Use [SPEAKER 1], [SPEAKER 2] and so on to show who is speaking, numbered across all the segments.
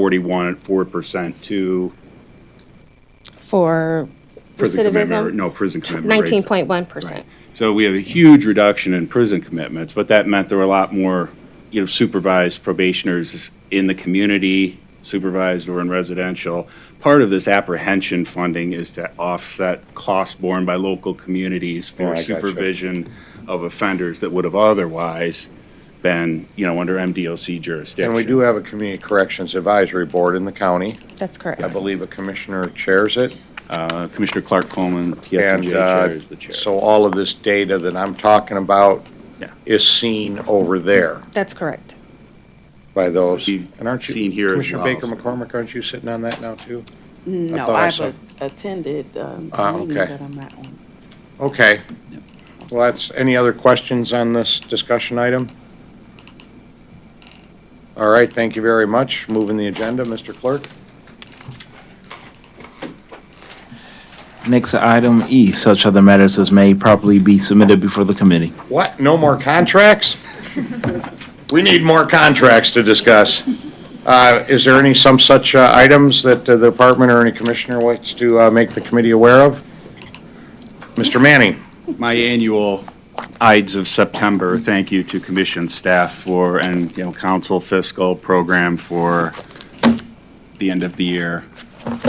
[SPEAKER 1] forty-one, four percent to,
[SPEAKER 2] for
[SPEAKER 1] prison commitment,
[SPEAKER 2] recidivism,
[SPEAKER 1] no, prison commitment rates.
[SPEAKER 2] nineteen point one
[SPEAKER 1] Right.
[SPEAKER 2] percent.
[SPEAKER 1] So we have a huge reduction in prison commitments, but that meant there were a lot more, you know, supervised probationers in the community, supervised or in residential. Part of this apprehension funding is to offset costs borne by local communities
[SPEAKER 3] Yeah, Oh, I
[SPEAKER 1] for
[SPEAKER 3] gotcha.
[SPEAKER 1] supervision of offenders that would have otherwise been, you know, under MDLC jurisdiction.
[SPEAKER 3] And we do have a Community Corrections Advisory Board in the county.
[SPEAKER 2] That's
[SPEAKER 3] I
[SPEAKER 2] correct.
[SPEAKER 3] believe a commissioner chairs it.
[SPEAKER 1] Uh, Commissioner Clark Coleman,
[SPEAKER 3] And
[SPEAKER 1] PSNJ
[SPEAKER 3] uh,
[SPEAKER 1] Chair, is the chair.
[SPEAKER 3] So all of this data that I'm talking about
[SPEAKER 1] Yeah.
[SPEAKER 3] is seen over there
[SPEAKER 2] That's correct.
[SPEAKER 3] by those.
[SPEAKER 1] Be
[SPEAKER 3] And aren't you?
[SPEAKER 1] seen here as
[SPEAKER 3] Commissioner
[SPEAKER 1] well.
[SPEAKER 3] Baker McCormick, aren't you sitting on that now too?
[SPEAKER 4] No,
[SPEAKER 3] thought I
[SPEAKER 4] I've
[SPEAKER 3] saw-
[SPEAKER 4] a- attended, um,
[SPEAKER 3] Ah,
[SPEAKER 4] a meeting
[SPEAKER 3] okay.
[SPEAKER 4] that I'm not on.
[SPEAKER 3] Okay. Well, that's, any other questions on this discussion item? All right, thank you very much. Moving the agenda, Mr. Clerk.
[SPEAKER 5] Next item E, such other matters as may properly be submitted before the committee.
[SPEAKER 3] What, no more contracts? We need more contracts to discuss. Uh, Is there any, some such uh, items that uh, the department or any commissioner wants to uh, make the committee aware of? Mr. Manning?
[SPEAKER 1] my annual Ides of September, thank you to commission staff for, and, you know, council fiscal program for the end of the year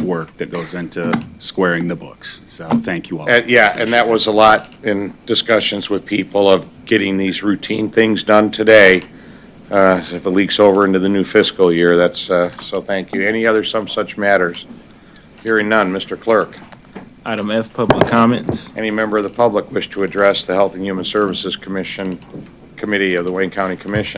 [SPEAKER 1] work that goes into squaring the books. So thank you all.
[SPEAKER 3] Uh, Yeah, and that was a lot in discussions with people of getting these routine things done today. Uh, If it leaks over into the new fiscal year, that's, uh, so thank you. Any other some such matters? Hearing none, Mr. Clerk.
[SPEAKER 5] Item F, public comments.
[SPEAKER 3] Any member of the public wish to address the Health and Human Services Commission, Committee of the Wayne County Commission?